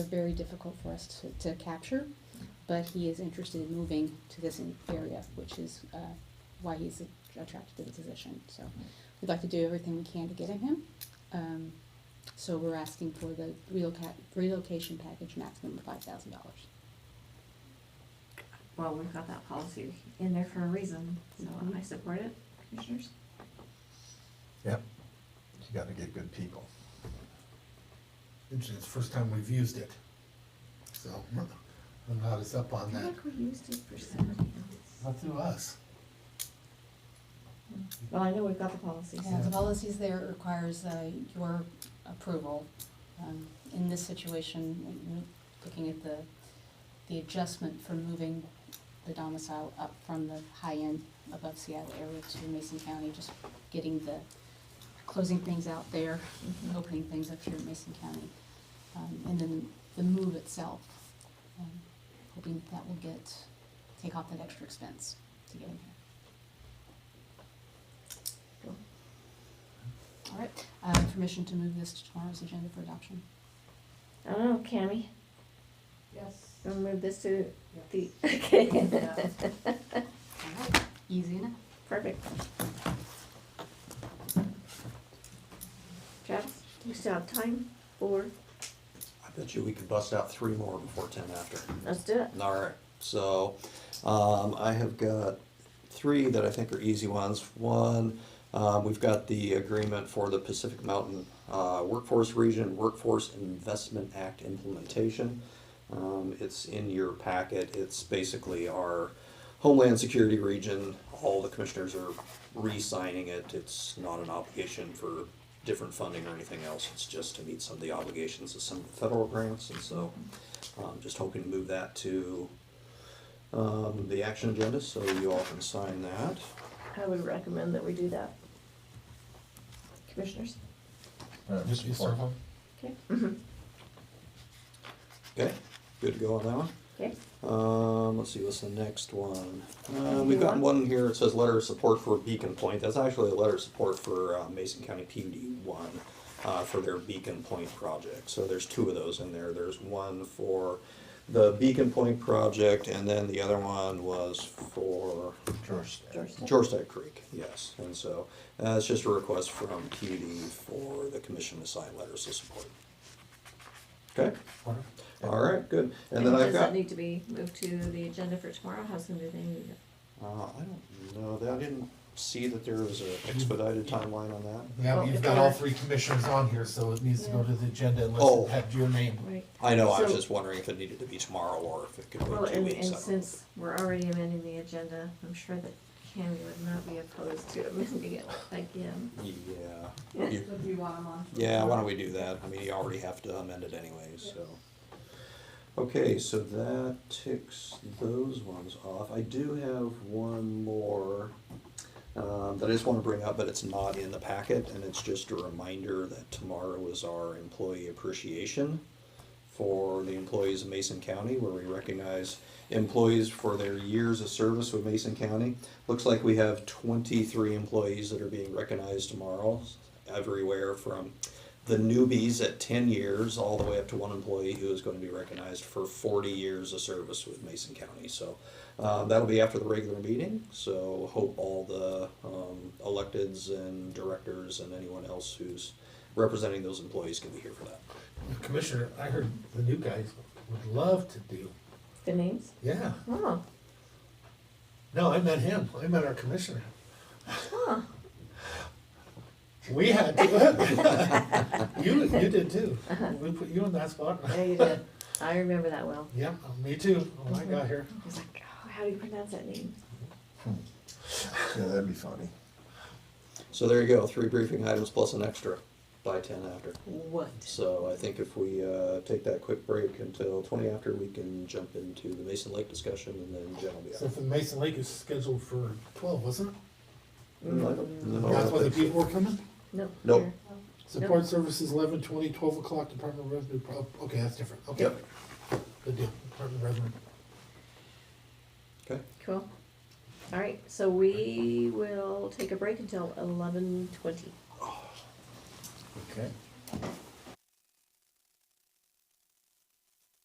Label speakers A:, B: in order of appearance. A: are very difficult for us to, to capture, but he is interested in moving to this in- area, which is, uh, why he's attracted to the position, so. We'd like to do everything we can to get at him, um, so we're asking for the relocat, relocation package maximum of five thousand dollars.
B: Well, we've got that policy in there for a reason, so
A: Mhm.
B: I support it, Mm-hmm. commissioners.
C: Yep. You gotta get good people.
D: It's the first time we've used it. So I'm not as up
B: I
D: on
B: feel
D: that.
B: like we used it for somebody else.
D: Not through us.
B: Well, I know we've got the policies.
A: Yeah, the policies there requires uh, your approval. Um, In this situation, when you're looking at the, the adjustment for moving the domicile up from the high end above Seattle area to Mason County, just getting the, closing things out there,
B: Mhm.
A: opening things up here in Mason County. Um, And then the move itself, um, hoping that will get, take off that extra expense to get in here. All right, uh, permission to move this to tomorrow's agenda for adoption.
B: I don't know, Cammy,
E: Yes.
B: we'll move this to
E: Yeah.
B: the, okay,
E: Yeah.
A: All right, easy enough.
B: perfect. Travis, we still have time for,
F: I bet you we could bust out three more before ten after.
B: let's do it.
F: All right, so, um, I have got three that I think are easy ones. One, um, we've got the agreement for the Pacific Mountain, uh, Workforce Region Workforce Investment Act implementation. Um, it's in your packet, it's basically our Homeland Security Region, all the commissioners are re-signing it. It's not an obligation for different funding or anything else, it's just to meet some of the obligations of some of the federal grants, and so, um, just hoping to move that to, um, the action agenda, so you all can sign that.
B: I would recommend that we do that. Commissioners? Mm-hmm.
C: Uh,
D: Just be
C: support.
D: servo.
B: Okay.
F: Okay, good to go on that one?
B: Okay,
F: Um, let's see, what's the next one? Uh, we've got one here, it says letter of support for Beacon Point, that's actually a letter of support for uh, Mason County PUD one, uh, for their Beacon Point project, so there's two of those in there, there's one for the Beacon Point project, and then the other one was for
C: George.
B: George.
F: Georgetown Creek, yes, and so, uh, it's just a request from PUD for the commission to sign letters of support. Okay, all right, good, and then I've
B: Does that
F: got.
B: need to be moved to the agenda for tomorrow? How's soon do they need it?
F: Uh, I don't know, that- I didn't see that there was an expedited timeline on that.
D: Now
B: Well,
D: you've
B: if
D: got all
B: we're-
D: three commissioners on here, so it needs to go
B: Yeah.
D: to the agenda unless
F: Oh.
D: it had your name.
B: Right.
F: I know, I was
B: So-
F: just wondering if it needed to be tomorrow or if it could
B: Well,
F: wait two
B: and, and
F: weeks. I don't know.
B: since we're already amending the agenda, I'm sure that Cammy would not be opposed to amending it again.
F: Yeah, you-
E: Would you want them on?
F: yeah, why don't we do that? I mean, you already have to amend it anyways, so. Okay, so that ticks those ones off. I do have one more um, that I just want to bring up, but it's not in the packet, and it's just a reminder that tomorrow is our employee appreciation for the employees of Mason County, where we recognize employees for their years of service with Mason County. Looks like we have twenty-three employees that are being recognized tomorrow, everywhere from the newbies at ten years, all the way up to one employee who is gonna be recognized for forty years of service with Mason County. So, uh, that'll be after the regular meeting, so hope all the, um, electeds and directors and anyone else who's representing those employees can be here for that.
D: Commissioner, I heard the new guys would love to do.
B: The names?
D: Yeah.
B: Oh,
D: No, I met him. I met our commissioner.
B: huh,
D: We had to. You, you did too. We put you in that spot.
B: there you did. I remember that well.
D: Yep, me too. When I got here.
B: I was like, oh, how do you pronounce that name?
C: Yeah, that'd be funny.
F: So there you go, three briefing items plus an extra by ten after.
B: What?
F: So I think if we uh, take that quick break until twenty after, we can jump into the Mason Lake discussion and then Jen will be
D: So
F: out.
D: the Mason Lake is scheduled for twelve, wasn't it?
F: No, I
D: Mm. That's
F: don't
D: why the
F: think so.
D: people were coming?
B: No.
F: Nope.
B: here.
D: Support services eleven twenty, twelve o'clock, Department of Revenue, pro- okay, that's different, okay.
F: Yep.
D: Good deal, Department of Revenue.
F: Okay,
B: Cool. All right, so we will take a break until eleven twenty.
C: Okay.